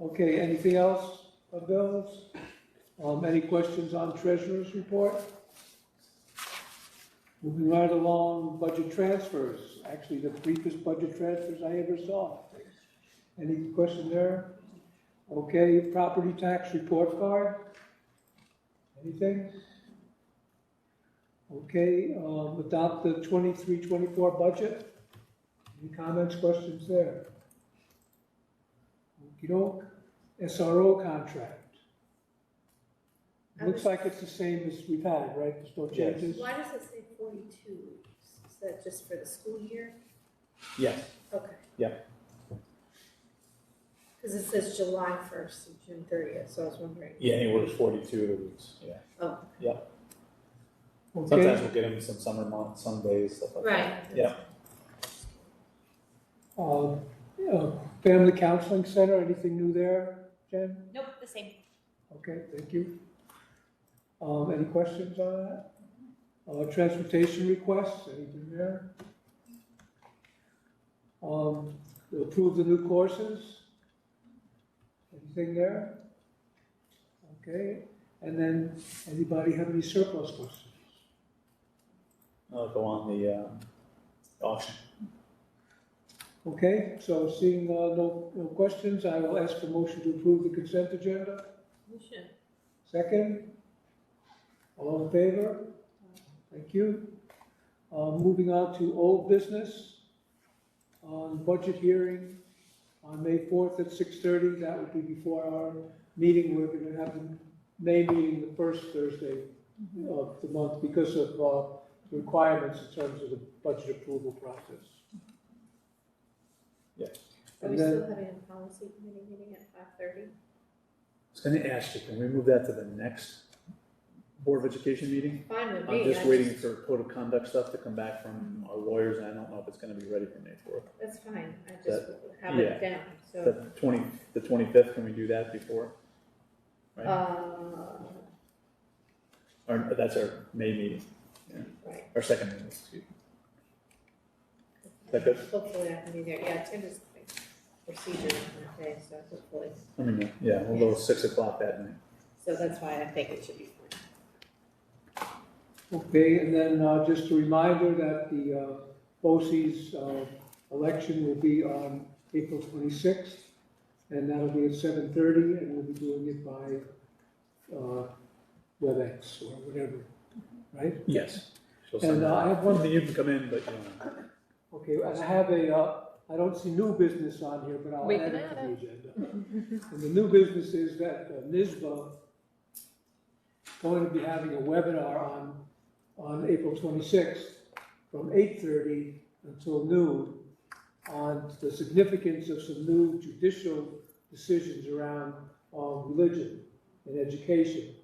Okay, anything else of bills? Um, any questions on treasurer's report? Moving right along, budget transfers, actually the briefest budget transfers I ever saw. Any question there? Okay, property tax report card? Anything? Okay, um, adopt the twenty-three, twenty-four budget? Any comments, questions there? Okey-doke, SRO contract. I Looks was- like it's the same as we've had, right, there's no Yes. changes? Why does it say forty-two weeks? Is that just for the school year? Yes, Okay. Yeah. Because it says July first to June thirtieth, so I was wondering. yeah, anywhere to forty-two weeks, yeah. Oh. Okay, Sometimes we'll get them some summer months, some days, stuff like that. Right. Yeah. um, uh, family counseling center, anything new there, Jen? Nope, the same. Okay, thank you. Um, any questions on that? Uh, transportation requests, anything there? Um, approve the new courses? Anything there? Okay, and then, anybody have any surplus questions? I'll go on the, um, auction. Okay, so seeing, uh, no, no questions, I will ask for motion to approve the consent agenda. You should. Second? All in favor? Thank you. Uh, Moving on to old business. On budget hearing on May 4th at 6:30, that would be before our meeting. We're going to have the May meeting the first Thursday of the month because of uh, requirements in terms of the budget approval process. Are And we then- still having a policy committee meeting at five thirty? I was gonna ask you, can we move that to the next Board of Education meeting? Fine with me. I'm just I waiting for code of conduct stuff to come back from our lawyers, and I don't know if it's gonna be ready for May fourth. That's fine, I just have it down, so, The twenty, the twenty-fifth, can we do that before? right. uh, Or, that's our May meeting, right. our second meeting, excuse me. Is that good? Hopefully I can be there, yeah, Tim is like procedure on that day, so hopefully, I mean, yeah, a little six o'clock that night. so that's why I think it should be fine. Okay, and then uh, just a reminder that the uh, BOCES, uh election will be on April 26th, and that'll be at 7:30, and we'll be doing it by uh, WebEx or whatever, right? Yes. She'll And send uh, that. I have One one, thing, you can come in, but, you know, okay, and I have a, uh, I don't see new business on here, but I'll We add can it to add the agenda. And the new business is that uh, NISBA going to be having a webinar on, on April twenty-sixth from eight-thirty until noon on the significance of some new judicial decisions around, um, religion and education.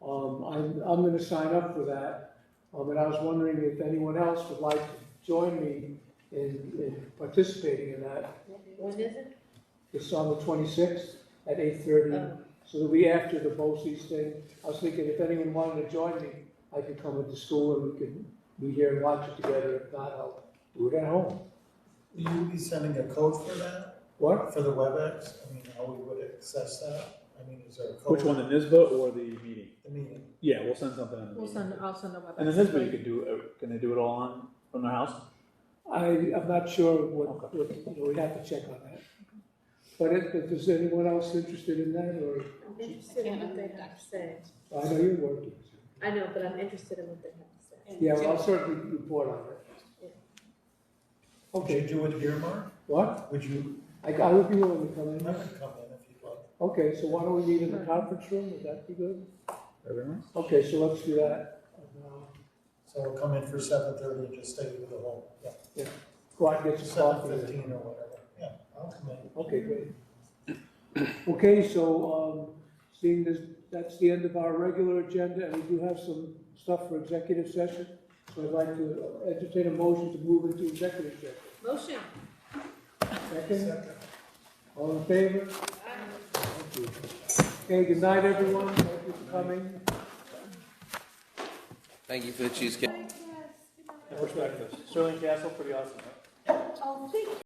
Um, I'm, I'm gonna sign up for that, um, and I was wondering if anyone else would like to join me in, in participating in that. When is it? It's on the twenty-sixth at eight-thirty, Oh, so it'll be after the BOCES thing. I was thinking if anyone wanted to join me, I could come into school and we could be here and watch it together. If not, I'll do it at home. Will you be sending a code for that, What? for the WebEx? I mean, how we would access that? I mean, is there a code? which one, the NISBA or the meeting? The meeting. Yeah, we'll send something on the We'll meeting. send, I'll send a web. And then this way you could do, uh, can they do it all on, from their house? I, I'm not sure what, Okay. what, you know, we'd have to check on that. But if, if there's anyone else interested in that, or, I'm interested in what they have to say. I know you're working. I know, but I'm interested in what they have to say. Yeah, well, I'll certainly report on it. Would you Okay, do it here, Mark? what? Would you, I, I would be willing to come I in. could come in if you'd like. Okay, so why don't we meet in the conference room? Would that be good? Everyone? Okay, so let's do that. And, uh, So we'll come in for seven thirty and just stay with the whole, yeah. Go out and get some Seven coffee. fifteen or whatever, yeah, I'll come in. Okay, great. Okay, so, um, seeing this, that's the end of our regular agenda, and we do have some stuff for executive session. So I'd like to entertain a motion to move into executive session. Motion. Second, all in favor? Thank you. Okay, good night, everyone. Thank you for coming. Thank you for the cheesecake. First breakfast, Sterling Castle, pretty awesome, huh? Oh, thank